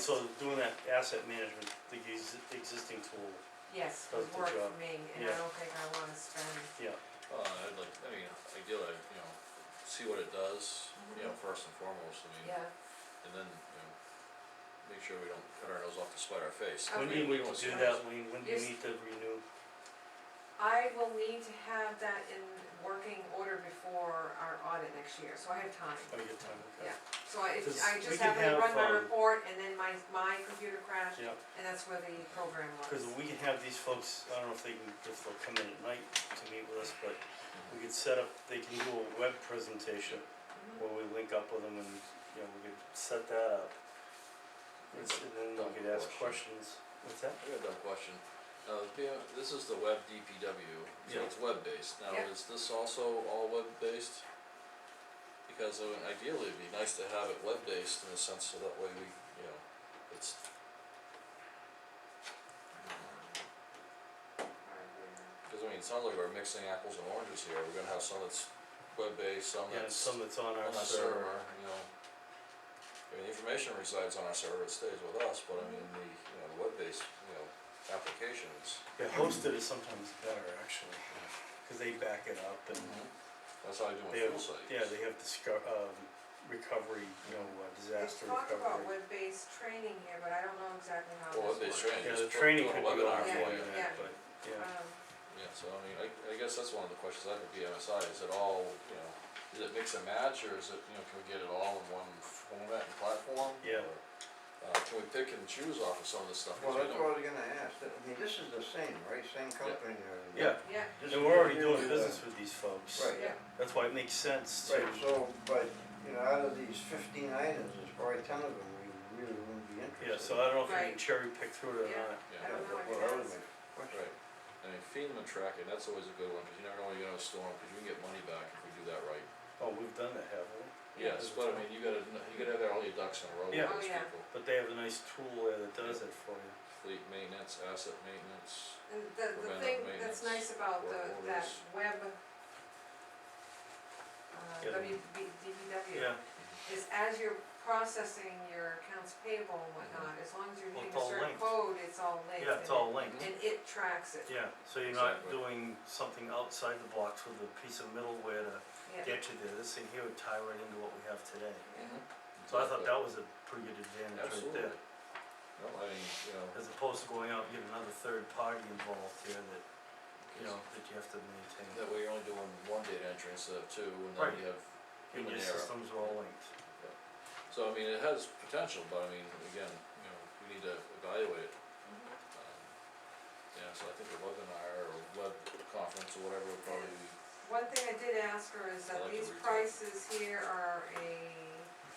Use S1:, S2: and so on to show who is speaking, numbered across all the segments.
S1: So doing that asset management, the ex- existing tool,
S2: Yes, it
S1: Does the
S2: worked
S1: job.
S2: for me, and
S1: Yeah. Mm.
S2: I don't think I wanna spend,
S1: yeah,
S3: Well, I'd like, I mean, ideally, I'd, you know, see what it does, you know, first and foremost, I
S2: Mm-hmm.
S3: mean,
S2: yeah,
S3: and then, you know, make sure we don't cut our nose off to spite our face.
S1: when do you
S3: We
S1: need
S3: don't
S1: to do
S3: wanna-
S1: that, Lean, when do you
S2: Yes.
S1: need to renew,
S2: I will need to have that in working order before our audit next year, so I have time.
S1: oh, you have time, okay,
S2: Yeah. So I,
S1: Does-
S2: it's- I
S1: we
S2: just
S1: can
S2: happened to
S1: have,
S2: run my
S1: um,
S2: report, and then my, my computer crashed,
S1: yeah,
S2: and that's where the program was.
S1: cause we can have these folks, I don't know if they can, if they'll come in at night to meet with us, but we could set up, they can do a web presentation
S2: Mhm.
S1: where we link up with them and, you know, we could set that up. And s- and then we could ask
S3: Question.
S1: questions, what's that?
S3: I got a dumb question, uh, being- this is the web DPW, so
S1: Yeah.
S3: it's web-based, now
S2: Yeah.
S3: is this also all web-based? Because I mean, ideally, it'd be nice to have it web-based in a sense, so that way we, you know, it's. Cause I mean, it sounds like we're mixing apples and oranges here, we're gonna have some that's web-based, some
S1: Yeah,
S3: that's
S1: some that's on
S3: on
S1: our
S3: our
S1: server,
S3: server, you know. I mean, the information resides on our server, it stays with us, but I mean, the, you know, the web-based, you know, applications.
S1: yeah, hosted is sometimes better, actually, cause they back it up and.
S3: That's how I do
S1: Mm-hmm.
S3: my
S1: They have-
S3: fuel sites.
S1: Yeah, they have disco- um, recovery, you know, uh,
S2: They've
S1: disaster
S2: talked about
S1: recovery.
S2: web-based training here, but I don't know exactly how
S3: Well,
S2: this
S3: web-based
S2: works.
S3: training,
S1: Yeah,
S3: just
S1: the
S3: put-
S1: training
S3: do a
S1: could be on the
S2: Yeah,
S3: webinar for you.
S1: internet,
S2: yeah.
S1: but, yeah,
S2: Um,
S3: Yeah, so I mean, I, I guess that's one of the questions I have at BMSI, is it all, you know, is it mix and match, or is it, you know, can we get it all in one format and platform?
S1: Yeah.
S3: Or, Uh, can we pick and choose off of some of this stuff,
S4: Well,
S3: because we
S4: that's
S3: don't.
S4: what I was gonna ask, I mean, this is the same, right, same company, uh.
S1: yeah,
S2: yeah,
S4: this
S1: and
S4: is
S1: we're already
S4: really
S1: doing
S4: the-
S1: business with these folks.
S4: Right.
S2: yeah,
S1: That's why it makes sense to,
S4: Right, so, but, you know, out of these fifteen items, there's probably ten of them we really wouldn't be interested in.
S1: yeah, so I don't know if we can
S2: Right.
S1: cherry pick through it or
S2: Yeah.
S1: not.
S2: I
S3: Yeah.
S4: Yeah,
S2: don't know,
S4: but,
S2: I could
S4: well, that
S2: ask.
S4: was my question.
S3: Right, I mean, FEMA tracking, that's always a good one, cause you never know when you're gonna storm, cause you can get money back if we do that right.
S1: Oh, we've done that, haven't we?
S3: Yes, but I mean, you gotta, kn- you gotta have all your ducks in a row with
S1: Yeah.
S2: Oh,
S3: those
S2: yeah.
S3: people,
S1: But they have a nice tool there that does it for you.
S3: fleet maintenance, asset maintenance,
S2: And the, the
S3: Preventive
S2: thing that's nice
S3: maintenance,
S2: about
S3: work
S2: the, that
S3: orders.
S2: web,
S1: Yeah,
S2: uh,
S1: the-
S2: WBDPW,
S1: Yeah,
S2: is as you're processing your accounts payable and whatnot, as long as you're
S1: Mm-hmm. Well,
S2: hitting
S1: it's
S2: a
S1: all
S2: certain
S1: linked.
S2: code, it's all linked.
S1: yeah, it's
S2: and
S1: all linked,
S2: it- And it tracks it,
S1: yeah, so you're not
S3: Exactly.
S1: doing something outside the box with a piece of middleware to
S2: yeah.
S1: get you there, this thing here would tie right into what we have today. So I thought
S3: Exactly.
S1: that was a pretty good advantage right
S3: Absolutely.
S1: there.
S3: No, I mean, you know,
S1: As opposed to going out and getting another third party involved here that, you know, that you have to maintain.
S3: that way you're only doing one data entry instead of two, and
S1: Right.
S3: then you have
S1: And your
S3: human error.
S1: systems are all linked.
S3: So I mean, it has potential, but I mean, again, you know, we need to evaluate it. Um, Yeah, so I think a webinar or web conference or whatever would probably be
S2: One thing I did ask her is
S3: I
S2: that
S3: like
S2: these
S3: the retail.
S2: prices here are a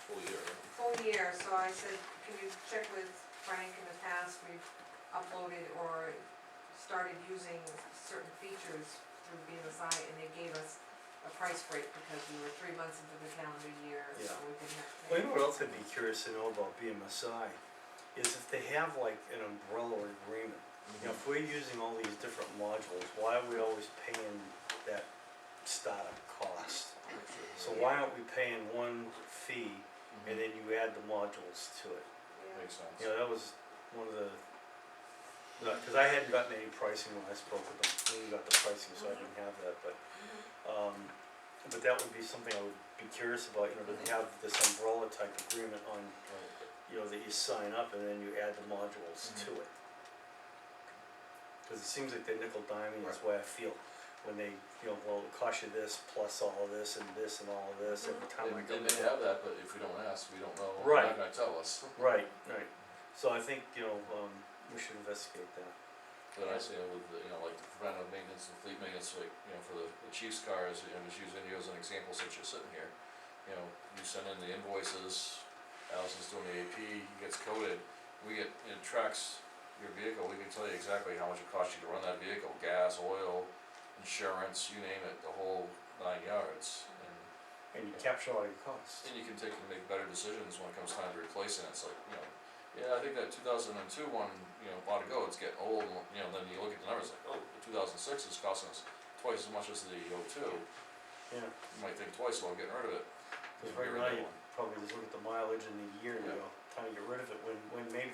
S3: full year.
S2: full year, so I said, can you check with Frank, in the past, we've uploaded or started using certain features through BMSI, and they gave us a price break because we were three months into the calendar year, so
S1: Yeah.
S2: we didn't have to
S1: Well,
S2: pay.
S1: you know what else I'd be curious to know about BMSI, is if they have like an umbrella agreement. You know, if we're using all these different modules, why are we always paying that startup cost? So why aren't we paying one fee and then you add the modules to it?
S2: Yeah.
S3: Mm-hmm. Makes sense.
S1: You know, that was one of the, no, cause I hadn't gotten any pricing when I spoke with them, we got the pricing, so I didn't have that, but Um, but that would be something I would be curious about, you know, to have this umbrella type agreement on, you know, that you sign up and then you add the modules to it. Cause it seems like they nickel diming, that's the way I feel, when they, you know, well, it costs you this plus all of this and this and all of this every
S3: They,
S1: time I
S3: they
S1: come
S3: may
S1: in.
S3: have that, but if we don't ask, we don't know, they're
S1: Right.
S3: not gonna tell us.
S1: Right, right, so I think, you know, um, we should investigate that,
S3: But I see it with, the, you know, like the preventive maintenance and fleet maintenance, like, you know, for the the chief's cars, you know, just using you as an example since you're sitting here. You know, you send in the invoices, Allison's doing the AP, it gets coded, we get, it tracks your vehicle, we can tell you exactly how much it costs you to run that vehicle, gas, oil, insurance, you name it, the whole nine yards. And,
S1: and you capture all your costs.
S3: and you can take and make better decisions when it comes time to replacing it, it's like, you know, yeah, I think that two thousand and two one, you know, ought to go, it's getting old, and, you know, then you look at the numbers, like, oh, the two thousand six is costing us twice as much as the O two,
S1: Yeah,
S3: you might think twice about getting rid of it.
S1: cause
S3: Get
S1: right
S3: rid
S1: now
S3: of
S1: you
S3: one.
S1: probably just look at the mileage in the year and you
S3: Yeah.
S1: go, kinda get rid of it when, when maybe